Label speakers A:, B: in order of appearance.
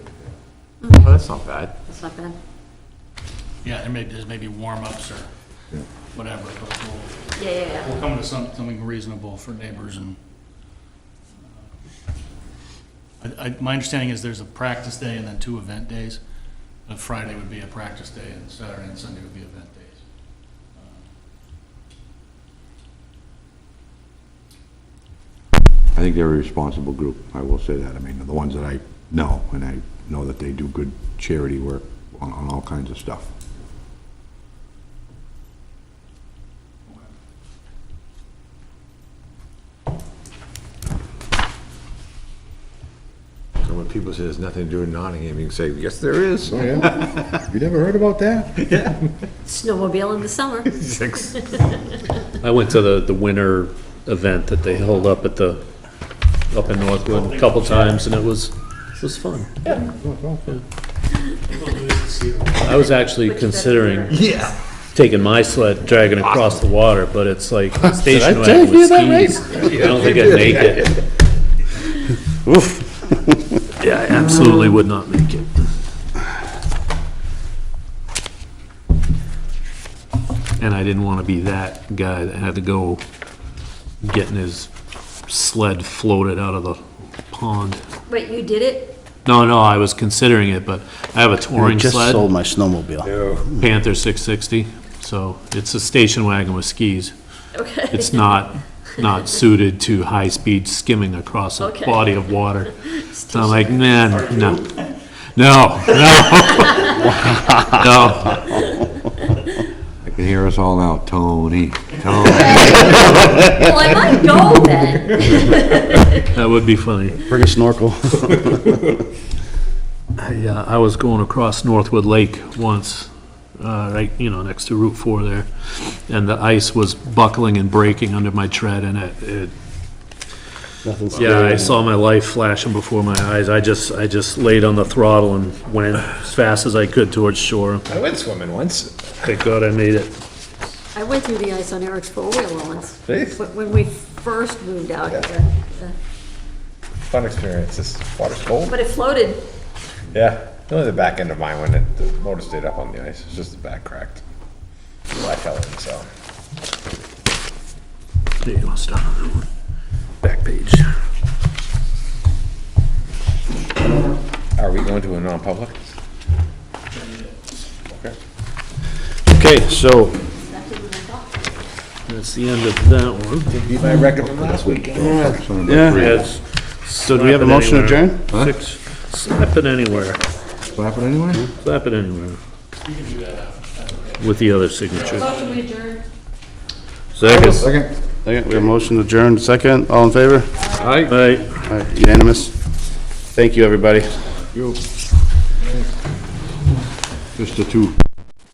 A: Oh, that's not bad.
B: That's not bad.
C: Yeah, there may, there's maybe warm-ups or whatever, but we'll,
B: Yeah, yeah, yeah.
C: we'll come to some- something reasonable for neighbors and. uh, I, I, my understanding is there's a practice day and then two event days. Uh, Friday would be a practice day and Saturday and Sunday would be event days.
D: I think they're a responsible group, I will say that. I mean, the ones that I know, and I know that they do good charity work on, on all kinds of stuff.
A: So when people say there's nothing to do in Nottingham, you can say, yes, there is.
E: Oh, yeah? You never heard about that?
B: Snowmobile in the summer.
A: Six.
F: I went to the, the winter event that they held up at the, up in Northwood a couple times, and it was, it was fun. I was actually
B: Which that's
F: considering
B: where-
F: taking my sled, dragging it across the water, but it's like station wagon with skis. I don't think I'd make it. Oof. Yeah, I absolutely would not make it. And I didn't want to be that guy that had to go getting his sled floated out of the pond.
B: Wait, you did it?
F: No, no, I was considering it, but I have a
G: I
F: touring
G: just
F: sled.
G: sold my snowmobile.
F: Panther 660, so it's a station wagon with skis.
B: Okay.
F: It's not, not suited to high-speed skimming across a
B: Okay.
F: body of water. So I'm like, nah, no, no, no, no.
D: I can hear us all now, Tony, Tony.
B: Well, I might go then.
F: That would be funny.
G: Bring a snorkel.
F: I, uh, I was going across Northwood Lake once, uh, right, you know, next to Route 4 there, and the ice was buckling and breaking under my tread, and it, it
G: Nothing's
F: Yeah, I
G: there.
F: saw my life flashing before my eyes. I just, I just laid on the throttle and went as fast as I could towards shore.
A: I went swimming once.
F: Thank God I made it.
B: I went through the ice on Eric's four-wheeler once.
A: Really?
B: Wh- When we first moved out
A: Yeah.
B: here. Uh,
A: Fun experience. This water's cold.
B: But it floated.
A: Yeah. Only the back end of mine when it, the motor stayed up on the ice. It's just the back cracked. Black helen, so.
F: There you go, stop.
A: Back page. Are we going to a non-public? Okay.
G: Okay, so,
F: That's the end of that one.
A: Beat my record from last week.
G: yeah, so do we have a motion to adjourn?
F: Six, slap it anywhere,
D: Slap it anyway?
F: slap it anywhere. With the other signature.
B: Motion adjourned.
G: Second.
D: Second.
G: Second, we have a motion to adjourn, second, all in favor?
F: Bye.
G: All right, unanimous. Thank you, everybody.
D: Just the two.